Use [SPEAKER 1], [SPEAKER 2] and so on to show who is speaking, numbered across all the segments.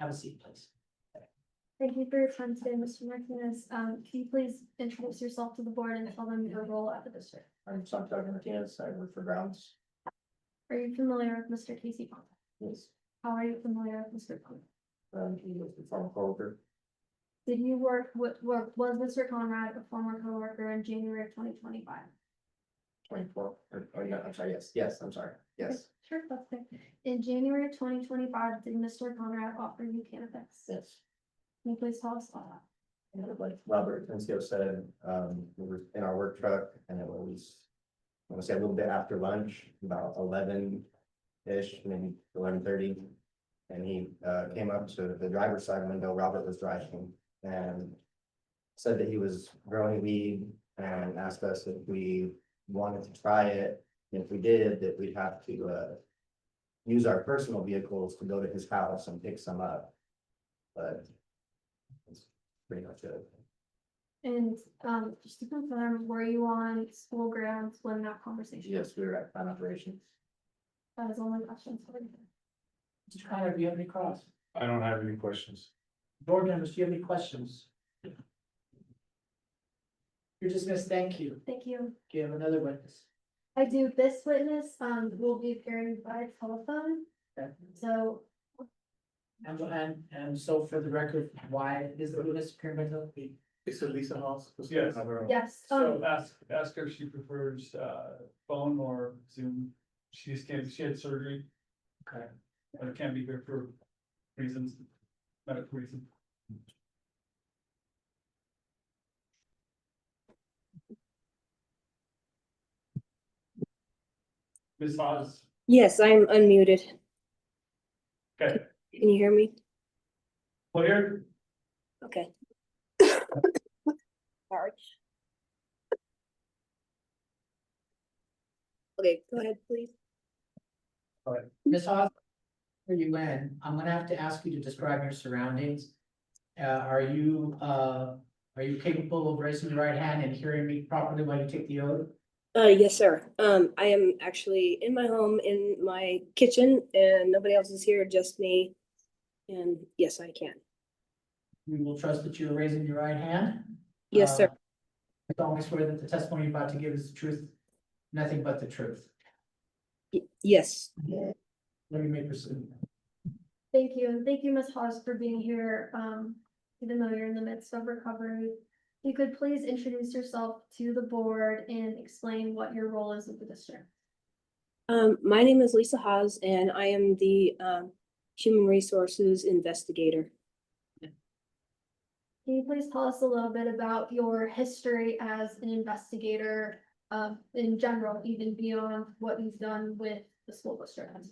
[SPEAKER 1] Have a seat, please.
[SPEAKER 2] Thank you for your time today, Mr. Martinez. Um, can you please introduce yourself to the board and tell them your role at the district?
[SPEAKER 3] I'm Santiago Martinez, I work for Grounds.
[SPEAKER 2] Are you familiar with Mr. Casey Ponte?
[SPEAKER 3] Yes.
[SPEAKER 2] How are you familiar with Mr. Ponte?
[SPEAKER 3] Um, he was the former coworker.
[SPEAKER 2] Did you work with, work, was Mr. Conrad a former coworker in January of twenty twenty-five?
[SPEAKER 3] twenty-four, or, oh, no, I'm sorry, yes, yes, I'm sorry, yes,
[SPEAKER 2] Sure, that's it. In January of twenty twenty-five, did Mr. Conrad offer you cannabis? Can
[SPEAKER 3] yes.
[SPEAKER 2] you please tell us about that?
[SPEAKER 3] And like Robert Tencio said, um, we were in our work truck and it was, I want to say a little bit after lunch, about eleven-ish, maybe eleven thirty. And he, uh, came up to the driver's side window, Robert was driving, and said that he was growing weed and asked us if we wanted to try it. And if we did, that we'd have to, uh, use our personal vehicles to go to his house and pick some up. But that's pretty much it.
[SPEAKER 2] And, um, just to confirm, were you on school grounds when that conversation?
[SPEAKER 3] Yes, we were at plant operations.
[SPEAKER 2] That is the only question for you.
[SPEAKER 1] Mr. Connor, do you have any cross?
[SPEAKER 4] I don't have any questions.
[SPEAKER 1] Board members, do you have any questions? You're dismissed, thank you.
[SPEAKER 2] Thank you.
[SPEAKER 1] Do you have another witness?
[SPEAKER 2] I do, this witness, um, will be appearing by telephone,
[SPEAKER 1] Okay.
[SPEAKER 2] so
[SPEAKER 1] And, and, and so for the record, why is the witness appearing by telephone?
[SPEAKER 5] It's a Lisa Hoss.
[SPEAKER 4] Yes.
[SPEAKER 2] yes,
[SPEAKER 4] So
[SPEAKER 2] um,
[SPEAKER 4] ask, ask her if she prefers, uh, phone or Zoom. She just can't, she had surgery,
[SPEAKER 1] Okay.
[SPEAKER 4] but can't be here for reasons, medical reasons. Ms. Oz,
[SPEAKER 6] Yes, I'm unmuted.
[SPEAKER 4] Okay.
[SPEAKER 6] Can you hear me?
[SPEAKER 4] clear?
[SPEAKER 6] Okay. Sorry. Okay, go ahead, please.
[SPEAKER 1] Ms. Hawes, where you in, I'm gonna have to ask you to describe your surroundings. Uh, are you, uh, are you capable of raising your right hand and hearing me properly while you take the oath?
[SPEAKER 6] Uh, yes, sir. Um, I am actually in my home, in my kitchen, and nobody else is here, just me. And yes, I can.
[SPEAKER 1] We will trust that you're raising your right hand.
[SPEAKER 6] Yes, sir.
[SPEAKER 1] Uh, I solemnly swear that the testimony you're about to give is the truth, nothing but the truth.
[SPEAKER 6] Y- Yes,
[SPEAKER 1] Let me make proceed.
[SPEAKER 2] thank you, and thank you, Ms. Hawes, for being here, um, even though you're in the midst of recovery. You could please introduce yourself to the board and explain what your role is with the district.
[SPEAKER 6] Um, my name is Lisa Haas, and I am the, um, Human Resources Investigator.
[SPEAKER 2] Can you please tell us a little bit about your history as an investigator, um, in general, even beyond what you've done with the school district?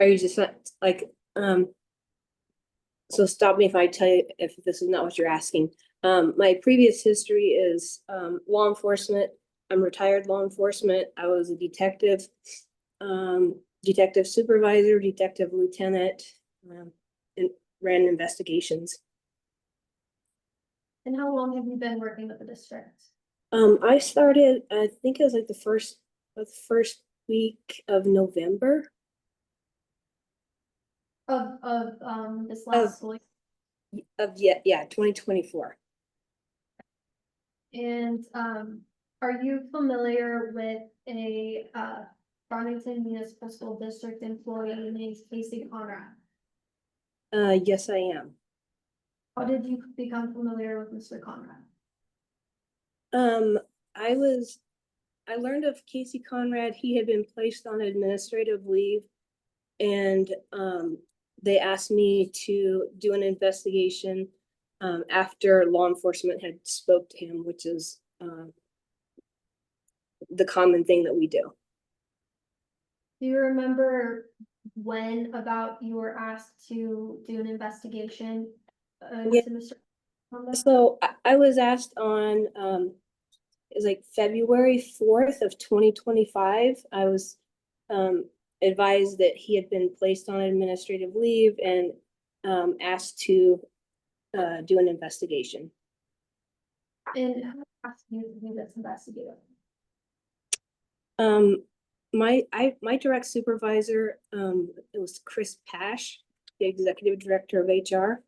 [SPEAKER 6] Are you just not, like, um, so stop me if I tell you, if this is not what you're asking. Um, my previous history is, um, law enforcement. I'm retired law enforcement. I was a detective, um, detective supervisor, detective lieutenant, um, and ran investigations.
[SPEAKER 2] And how long have you been working with the district?
[SPEAKER 6] Um, I started, I think it was like the first, the first week of November.
[SPEAKER 2] Of, of, um, this
[SPEAKER 6] Of-
[SPEAKER 2] last school,
[SPEAKER 6] Of, yeah, yeah, twenty twenty-four.
[SPEAKER 2] and, um, are you familiar with a, uh, Farmington Municipal School District employee named Casey Conrad?
[SPEAKER 6] Uh, yes, I am.
[SPEAKER 2] How did you become familiar with Mr. Conrad?
[SPEAKER 6] Um, I was, I learned of Casey Conrad, he had been placed on administrative leave. And, um, they asked me to do an investigation, um, after law enforcement had spoke to him, which is, um, the common thing that we do.
[SPEAKER 2] Do you remember when about you were asked to do an investigation? Uh,
[SPEAKER 6] Yeah.
[SPEAKER 2] into Mr. Conrad?
[SPEAKER 6] So I, I was asked on, um, it was like February fourth of twenty twenty-five. I was, um, advised that he had been placed on administrative leave and, um, asked to, uh, do an investigation.
[SPEAKER 2] And who asked you to do this investigation?
[SPEAKER 6] Um, my, I, my direct supervisor, um, it was Chris Pash. the executive director of HR.